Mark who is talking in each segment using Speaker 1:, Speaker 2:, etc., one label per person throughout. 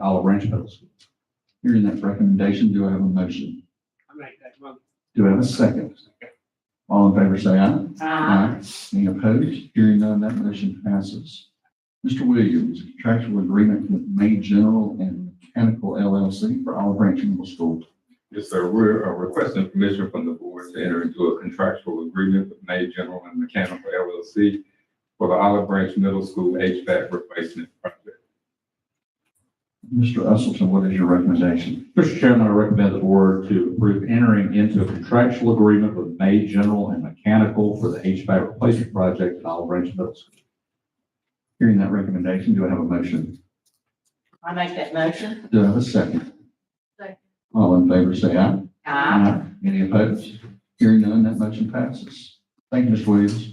Speaker 1: Olive Branch Middle School. Hearing that recommendation, do I have a motion?
Speaker 2: I make that motion.
Speaker 1: Do I have a second? All in favor, say aye.
Speaker 2: Uh,
Speaker 1: Aye. Any opposed? Hearing none, that motion passes. Mr. Williams, contractual agreement with May General and Mechanical LLC for Olive Branch Middle School.
Speaker 3: Yes, sir. We're uh, requesting permission from the board to enter into a contractual agreement with May General and Mechanical LLC for the Olive Branch Middle School HVAC replacement project.
Speaker 1: Mr. Usleton, what is your recommendation?
Speaker 4: Mr. Chairman, I recommend the board to approve entering into a contractual agreement with May General and Mechanical for the HVAC replacement project at Olive Branch Middle School.
Speaker 1: Hearing that recommendation, do I have a motion?
Speaker 5: I make that motion.
Speaker 1: Do I have a second?
Speaker 5: Second.
Speaker 1: All in favor, say aye.
Speaker 5: Aye.
Speaker 1: Any opposed? Hearing none, that motion passes. Thank you, Ms. Williams.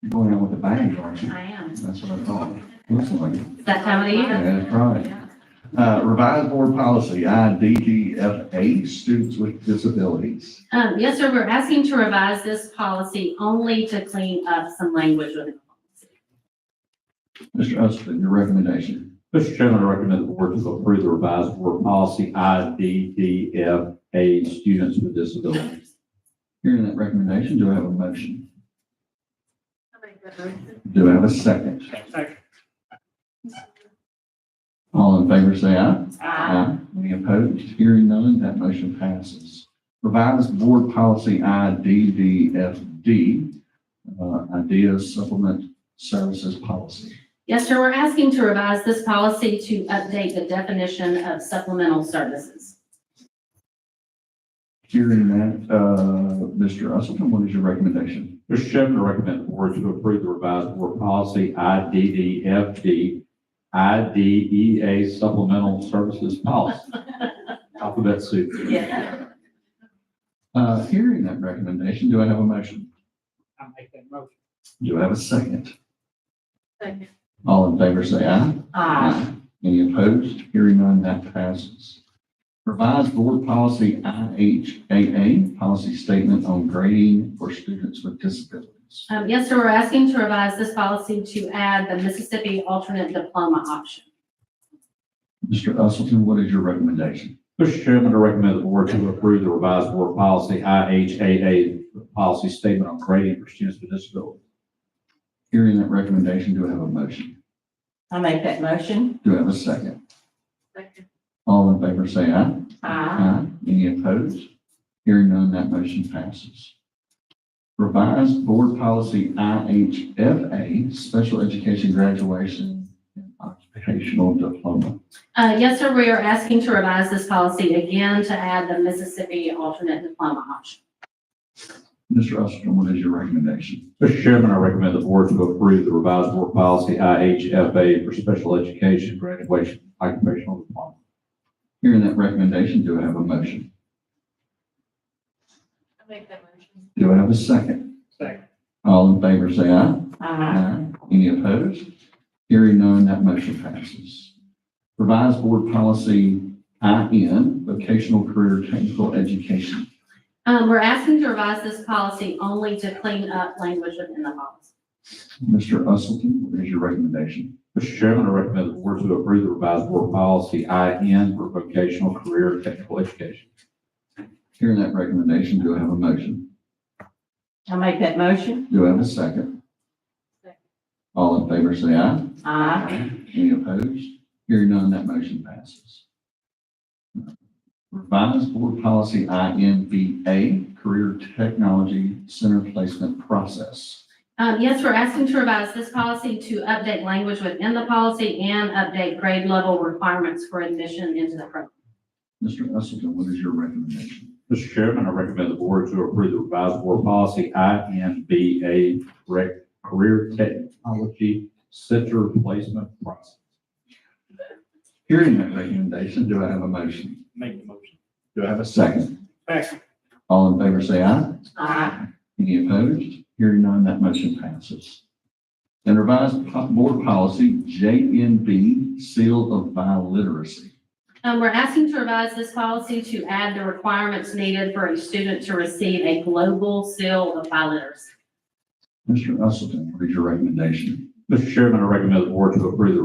Speaker 1: You're going out with a bang, aren't you?
Speaker 6: I am.
Speaker 1: That's what I thought. Looks like it.
Speaker 6: It's that time of the year.
Speaker 1: That's right. Uh, Revised board policy, IDGFA, students with disabilities.
Speaker 6: Um, yes, sir, we're asking to revise this policy only to clean up some language within the policy.
Speaker 1: Mr. Usleton, your recommendation.
Speaker 4: Mr. Chairman, I recommend the board to approve the revised board policy IDDFA, students with disabilities.
Speaker 1: Hearing that recommendation, do I have a motion?
Speaker 5: I make that motion.
Speaker 1: Do I have a second?
Speaker 2: Second.
Speaker 1: All in favor, say aye.
Speaker 6: Uh,
Speaker 5: Aye.
Speaker 1: Aye. Any opposed? Hearing none, that motion passes. Revised Board Policy IDDFD, uh, Ideas Supplement Services Policy.
Speaker 6: Yes, sir, we're asking to revise this policy to update the definition of supplemental services.
Speaker 1: Hearing that, uh, Mr. Usleton, what is your recommendation?
Speaker 4: Mr. Chairman, I recommend the board to approve the revised board policy IDDFD, IDEA E supplemental services policy. Alphabet soup.
Speaker 5: Yeah.
Speaker 1: Uh, Hearing that recommendation, do I have a motion?
Speaker 2: I make that motion.
Speaker 1: Do I have a second?
Speaker 5: Second.
Speaker 1: All in favor, say aye.
Speaker 6: Uh,
Speaker 5: Aye.
Speaker 1: Any opposed? Hearing none, that passes. Revised Board Policy IHAA, Policy Statement on Grading for Students with Disabilities.
Speaker 6: Um, yes, sir, we're asking to revise this policy to add the Mississippi alternate diploma option.
Speaker 1: Mr. Usleton, what is your recommendation?
Speaker 4: Mr. Chairman, I recommend the board to approve the revised board policy IHAA, policy statement on grading for students with disabilities.
Speaker 1: Hearing that recommendation, do I have a motion?
Speaker 5: I make that motion.
Speaker 1: Do I have a second?
Speaker 5: Second.
Speaker 1: All in favor, say aye.
Speaker 6: Uh,
Speaker 5: Aye.
Speaker 1: Any opposed? Hearing none, that motion passes. Revised Board Policy IHFA, Special Education Graduation and Occupational Diploma.
Speaker 6: Uh, yes, sir, we are asking to revise this policy again to add the Mississippi alternate diploma option.
Speaker 1: Mr. Usleton, what is your recommendation?
Speaker 4: Mr. Chairman, I recommend the board to approve the revised board policy IHFA for special education graduation occupational diploma.
Speaker 1: Hearing that recommendation, do I have a motion?
Speaker 5: I make that motion.
Speaker 1: Do I have a second?
Speaker 2: Second.
Speaker 1: All in favor, say aye.
Speaker 5: Aye.
Speaker 1: Aye. Any opposed? Hearing none, that motion passes. Revised Board Policy IN, Vocational Career Technical Education.
Speaker 6: Um, we're asking to revise this policy only to clean up language within the policy.
Speaker 1: Mr. Usleton, what is your recommendation?
Speaker 4: Mr. Chairman, I recommend the board to approve the revised board policy IN for vocational career technical education.
Speaker 1: Hearing that recommendation, do I have a motion?
Speaker 5: I make that motion.
Speaker 1: Do I have a second?
Speaker 5: Second.
Speaker 1: All in favor, say aye.
Speaker 5: Aye.
Speaker 1: Any opposed? Hearing none, that motion passes. Revised Board Policy INVA, Career Technology Center Placement Process.
Speaker 6: Um, yes, we're asking to revise this policy to update language within the policy and update grade level requirements for admission into the program.
Speaker 1: Mr. Usleton, what is your recommendation?
Speaker 4: Mr. Chairman, I recommend the board to approve the revised board policy INBA rec- career technology center placement process.
Speaker 1: Hearing that recommendation, do I have a motion?
Speaker 2: Make the motion.
Speaker 1: Do I have a second?
Speaker 2: Second.
Speaker 1: All in favor, say aye.
Speaker 5: Aye.
Speaker 1: Any opposed? Hearing none, that motion passes. And revised po- board policy, JNB, seal of biliteracy.
Speaker 6: Um, we're asking to revise this policy to add the requirements needed for a student to receive a global seal of biliteracy.
Speaker 1: Mr. Usleton, what is your recommendation? Mr. Chairman, I recommend the board to approve the